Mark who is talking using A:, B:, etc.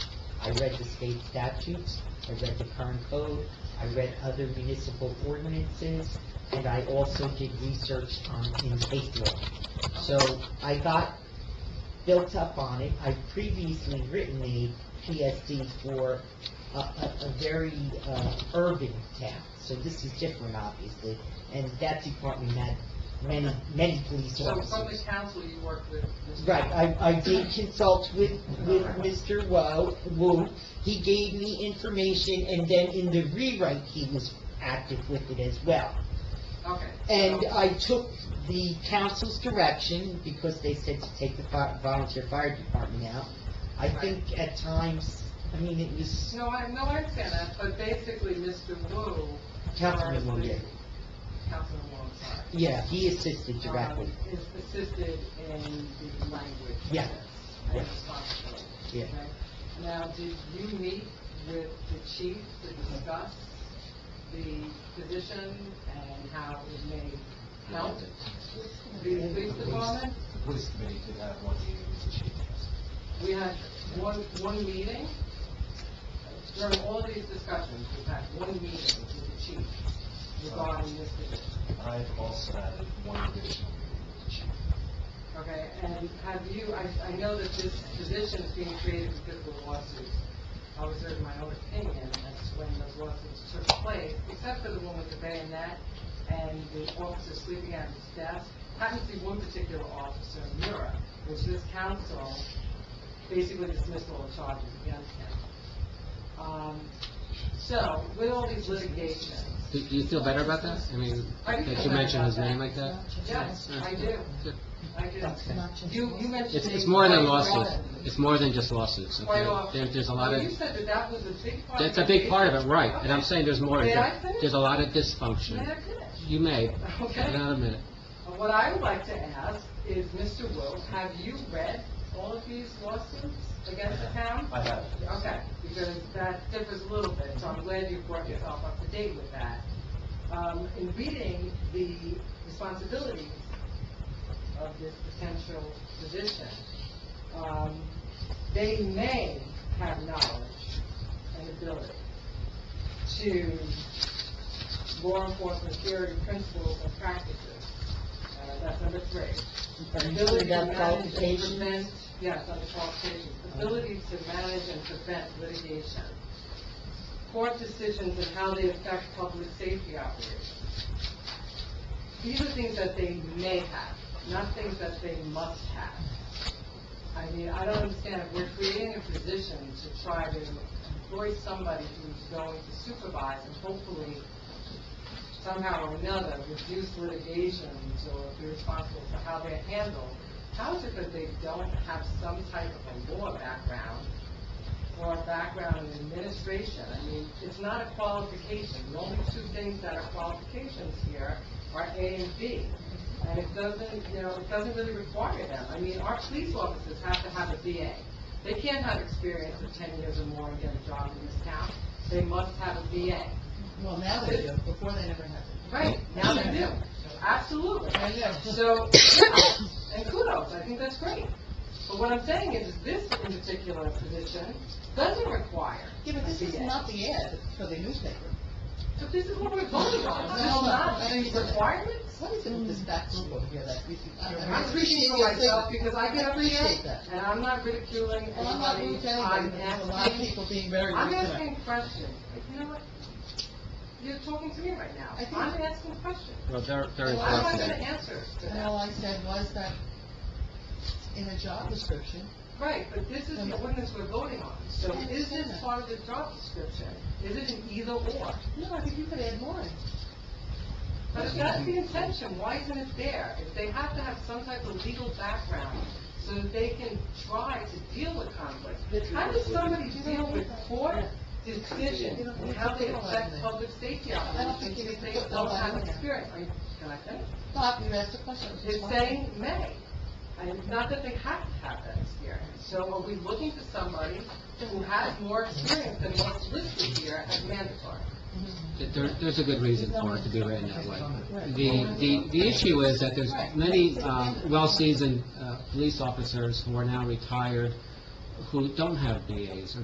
A: I read the state statutes, I read the current code, I read other municipal ordinances, and I also did research on, in state law. So I got built up on it. I'd previously written a PSD for a, a, a very, uh, urban town, so this is different, obviously. And that department had many, many police
B: So
A: officers.
B: from the council you work with, Mr.
A: Right, I, I did consult with, with Mr. Wo, Wu, he gave me information, and then in the rewrite, he was active with it as well.
B: Okay.
A: And
B: So-
A: I took the council's direction, because they said to take the fi- volunteer fire department out. I think at times, I mean, it was
B: No, I, no, I understand that, but basically, Mr. Wu.
A: Councilman Wu, yeah.
B: Councilman Wu, I'm sorry.
A: yeah, he assisted directly,
B: um, Is assisted in the language.
A: Yeah.
B: And
A: Yeah.
B: responsibility.
A: yeah.
B: okay? Now, did you meet with the chief to discuss the position and how it may help the police department?
C: Police committee did have one meeting with the chief.
B: We had one, one meeting. During all these discussions, we had one meeting with the chief regarding this position,
C: I've also had one additional meeting with the chief.
B: okay? And have you, I, I know that this position is being created because of the lawsuits. I was in my own opinion as to when those lawsuits took place, except for the one with the bayonet and the officer sleeping at his desk. Happened to be one particular officer, Mura, which this council basically dismissed all the charges against him. Um, So, with all these litigations,
D: Do do you feel better about that? I mean,
B: I do
D: that
B: feel
D: you
B: better
D: mentioned his
B: about
D: name
B: that.
D: like that?
B: yes, I do,
D: Good.
B: I do. You, you mentioned...
D: It's, it's
B: it
D: more than
B: quite
D: lawsuits.
B: often.
D: It's more than just lawsuits. okay?
B: Quite often.
D: There, there's a lot
B: Well,
D: of,
B: You said that that was a big part of
D: that's a big part of it, right,
B: Okay.
D: and I'm saying there's more.
B: May I
D: There-
B: finish?
D: There's a lot of
B: May I
D: dysfunction.
B: finish?
D: You may,
B: Okay.
D: not a minute.
B: Uh, What I would like to ask is, Mr. Wu, have you read all of these lawsuits against the town?
C: I have.
B: Okay, because that differs a little bit, so I'm glad you brought yourself up to date with that. Um, in reading the responsibilities of this potential position, um, they may have knowledge and ability to law enforcement theory, principles, and practices. Uh, that's number three. Ability
A: Including
B: to
A: that
B: manage and
A: qualification,
B: prevent- Yes, under qualifications, ability to manage and prevent litigation. Court decisions and how they affect public safety operations. These are things that they may have, not things that they must have. I mean, I don't understand, if we're creating a position to try to employ somebody who's going to supervise and hopefully somehow or another reduce litigations or be responsible for how they're handled, how is it that they don't have some type of a law background or a background in administration? I mean, it's not a qualification. The only two things that are qualifications here are A and B. And it doesn't, you know, it doesn't really require them. I mean, our police officers have to have a BA. They can't have experience of ten years or more and get a job in this town. They must have a BA.
E: Well, now they do, before they never had it.
B: Right, now they do, absolutely.
E: I know.
B: So, kudos, and kudos, I think that's great. But what I'm saying is, this in particular position doesn't require.
E: Yeah, but this
B: a
E: is
B: BA.
E: not the ad for the newspaper.
B: But this is what we're voting on,
E: No,
B: this is not
E: I don't
B: these
E: get it.
B: requirements.
E: What is it with this back school here that we, can- I- I
B: I'm speaking for
E: your
B: myself
E: thing.
B: because I get up here,
E: appreciate that.
B: and I'm not ridiculing
E: Well, I'm not
B: anybody.
E: rude to anybody,
B: I'm
E: but there's a lot of
B: asking,
E: people being very rude
B: I'm
E: tonight.
B: asking questions. Like, You know what? You're talking to me right now.
E: I think-
B: I'm asking questions.
D: Well, there, there
B: I'm
D: is
B: not
D: lawsuits.
B: gonna answer to
E: And
B: that.
E: all I said was that in the job description,
B: Right, but this is the ordinance we're voting on, so
E: I
B: is
E: understand
B: this
E: that.
B: part of the job description? Is it an either or?
E: no, I think you could add more.
B: But if that's the intention, why isn't it there? If they have to have some type of legal background so that they can try to deal with conflict, how does somebody deal with court decisions and how they affect public safety operations if they don't have experience? Are you, can I finish?
E: Bob, you asked a question. I was just
B: It's
E: wondering.
B: saying may, and it's not that they have to have that experience. So are we looking for somebody who has more experience than what's listed here as mandatory?
D: There, there's a good reason for it to be written that way. The, the, the issue is that there's many, um, well-seasoned, uh, police officers who are now retired, who don't have BAs or